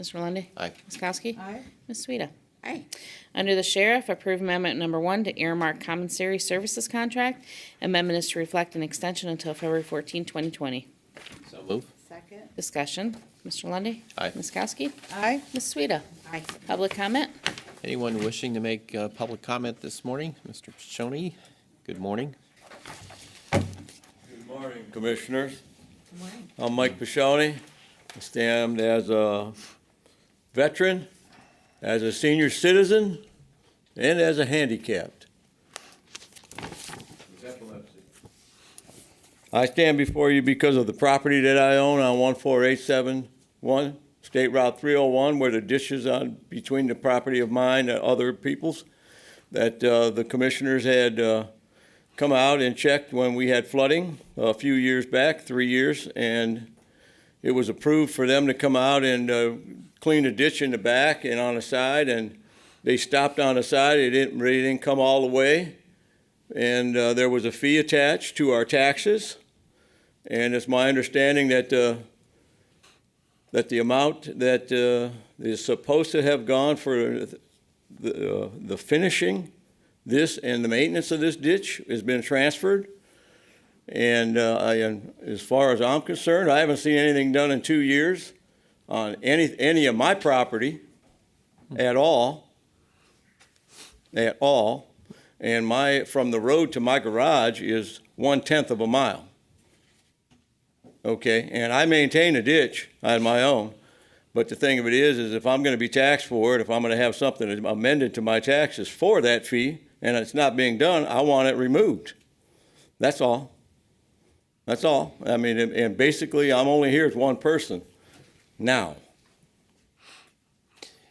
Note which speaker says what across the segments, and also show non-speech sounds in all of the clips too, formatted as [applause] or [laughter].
Speaker 1: Mr. Lundey.
Speaker 2: Aye.
Speaker 1: Ms. Kowski.
Speaker 3: Aye.
Speaker 1: Ms. Sueda.
Speaker 3: Aye.
Speaker 1: Under the Sheriff, approve amendment number one to earmark commissary services contract. Amendment is to reflect an extension until February 14, 2020.
Speaker 2: So move.
Speaker 3: Second.
Speaker 1: Discussion. Mr. Lundy.
Speaker 2: Aye.
Speaker 1: Ms. Kowski.
Speaker 3: Aye.
Speaker 1: Ms. Sueda.
Speaker 3: Aye.
Speaker 1: Public comment?
Speaker 2: Anyone wishing to make uh public comment this morning? Mr. Pichoni, good morning.
Speaker 4: Good morning, Commissioners.
Speaker 3: Good morning.
Speaker 4: I'm Mike Pashoni. I stand as a veteran, as a senior citizen, and as a handicapped. I stand before you because of the property that I own on 14871 State Route 301, where the ditch is on between the property of mine and other people's, that uh, the commissioners had uh, come out and checked when we had flooding a few years back, three years, and it was approved for them to come out and uh, clean a ditch in the back and on the side, and they stopped on the side. It didn't, they didn't come all the way, and uh, there was a fee attached to our taxes. And it's my understanding that uh, that the amount that uh, is supposed to have gone for the uh, the finishing this and the maintenance of this ditch has been transferred. And, uh, I, and as far as I'm concerned, I haven't seen anything done in two years on any, any of my property at all. At all. And my, from the road to my garage is one-tenth of a mile. Okay, and I maintain a ditch on my own. But the thing of it is, is if I'm gonna be taxed for it, if I'm gonna have something amended to my taxes for that fee, and it's not being done, I want it removed. That's all. That's all. I mean, and, and basically, I'm only here as one person now.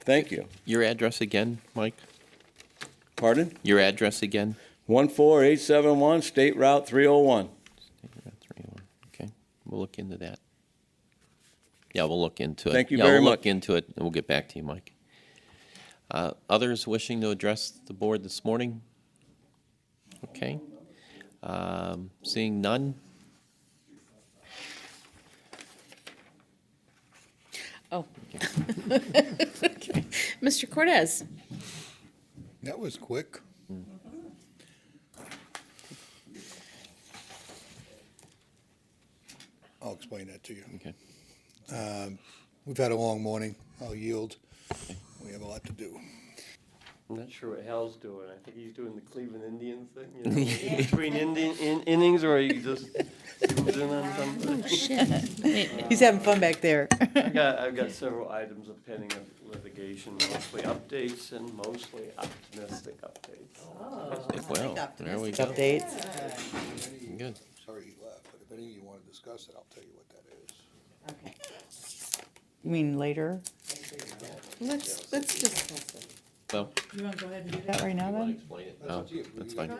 Speaker 4: Thank you.
Speaker 2: Your address again, Mike?
Speaker 4: Pardon?
Speaker 2: Your address again?
Speaker 4: One four eight seven one, State Route three oh one.
Speaker 2: oh Okay, we'll look into that. Yeah, we'll look into it.
Speaker 4: Thank you
Speaker 2: Yeah,
Speaker 4: very
Speaker 2: we'll look
Speaker 4: much.
Speaker 2: into it, and we'll get back to you, Mike. Uh, Others wishing to address the board this morning? Okay. Um, Seeing none?
Speaker 1: Oh. [laughs] Mr. Cortez?
Speaker 5: That was quick. I'll explain that to you.
Speaker 2: Okay.
Speaker 5: We've had a long morning. I'll yield. We have a lot to do.
Speaker 6: I'm not sure what Hal's doing. I think he's doing the Cleveland Indian thing, you know, between Indian in, innings, or he just zooms in on something.
Speaker 3: He's having fun back there.
Speaker 6: I got, I've got several items of pending litigation, mostly updates and mostly optimistic updates.
Speaker 2: Well, there we go.
Speaker 3: Updates. [laughs]
Speaker 2: Good.
Speaker 5: Sorry he left, but if any of you want to discuss it, I'll tell you what that is.
Speaker 3: You mean later?
Speaker 7: Let's, let's just,
Speaker 2: Well,
Speaker 3: You wanna go ahead and do that right now then?
Speaker 2: explain it. Oh, that's fine.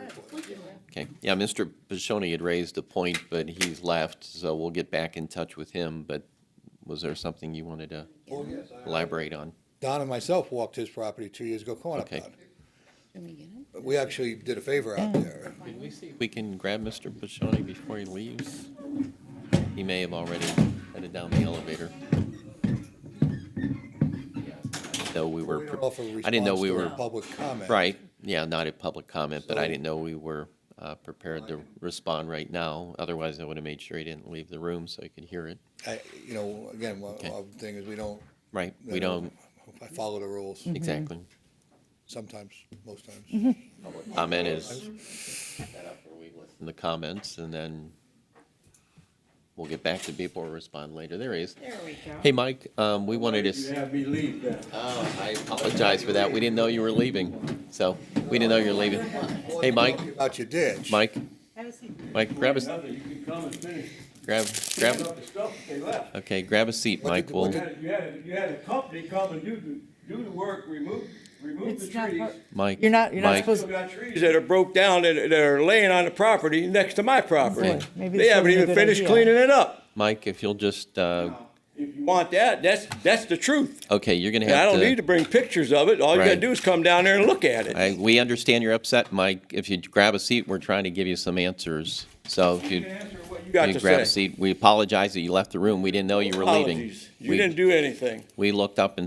Speaker 2: Okay, yeah, Mr. Bishoni had raised a point, but he's left, so we'll get back in touch with him, but was there something you wanted to elaborate on?
Speaker 5: Don and myself walked his property two years ago, come on up,
Speaker 2: Okay.
Speaker 5: Don.
Speaker 1: Can we get him?
Speaker 5: We actually did a favor out there.
Speaker 2: We can grab Mr. Bishoni before he leaves. He may have already headed down the elevator. Though we
Speaker 5: We
Speaker 2: were,
Speaker 5: don't
Speaker 2: pre-
Speaker 5: offer a
Speaker 2: I didn't know
Speaker 5: response
Speaker 2: we
Speaker 5: to
Speaker 2: were,
Speaker 5: a Public comment.
Speaker 2: right, yeah, not a public comment, but I
Speaker 5: So-
Speaker 2: didn't know we were uh, prepared to respond right now. Otherwise, I would have made sure he didn't leave the room so he could hear it,
Speaker 5: I, you know, again, one
Speaker 2: Okay.
Speaker 5: one thing is we don't,
Speaker 2: right?
Speaker 5: Yeah.
Speaker 2: We don't,
Speaker 5: I follow the rules,
Speaker 2: exactly.
Speaker 5: sometimes, most times.
Speaker 2: comment is in the comments, and then we'll get back to people who respond later. There he is.
Speaker 7: there we go.
Speaker 2: Hey, Mike, um, we wanted to, s-
Speaker 4: have me leave then?
Speaker 2: oh, I apologize for that. We didn't know you were leaving, so we didn't know you were leaving. Hey, Mike,
Speaker 5: About your ditch.
Speaker 2: Mike,
Speaker 3: Have a seat.
Speaker 2: Mike, grab a, s-
Speaker 4: You can come and finish.
Speaker 2: grab, grab,
Speaker 4: the stuff they left.
Speaker 2: okay, grab a seat,
Speaker 5: What
Speaker 2: Mike.
Speaker 5: did-
Speaker 2: We'll,
Speaker 5: what
Speaker 4: had, you had, you had a company come and do the, do the work, remove, remove
Speaker 3: It's not part-
Speaker 2: Mike,
Speaker 3: You're not, you're
Speaker 2: Mike,
Speaker 3: not supposed,
Speaker 4: trees that are broke down that that are laying on the property next to my property.
Speaker 3: Boy, maybe
Speaker 4: They
Speaker 3: this
Speaker 4: haven't
Speaker 3: wasn't a
Speaker 4: even
Speaker 3: good
Speaker 4: finished
Speaker 3: idea.
Speaker 4: cleaning it up.
Speaker 2: Mike, if you'll just, uh,
Speaker 4: If you want that, that's, that's the truth.
Speaker 2: okay, you're gonna
Speaker 4: And I
Speaker 2: have
Speaker 4: don't need to
Speaker 2: to,
Speaker 4: bring pictures of it. All you gotta
Speaker 2: Right.
Speaker 4: do is come down there and look at
Speaker 2: I,
Speaker 4: it.
Speaker 2: we understand you're upset, Mike. If you grab a seat, we're trying to give you some answers, so if you.
Speaker 4: answer what you got
Speaker 2: You
Speaker 4: to
Speaker 2: grab a
Speaker 4: say?
Speaker 2: seat. We apologize that you left the room. We didn't know you were leaving.
Speaker 4: Apologies. You
Speaker 2: We-
Speaker 4: didn't do anything.
Speaker 2: We looked up and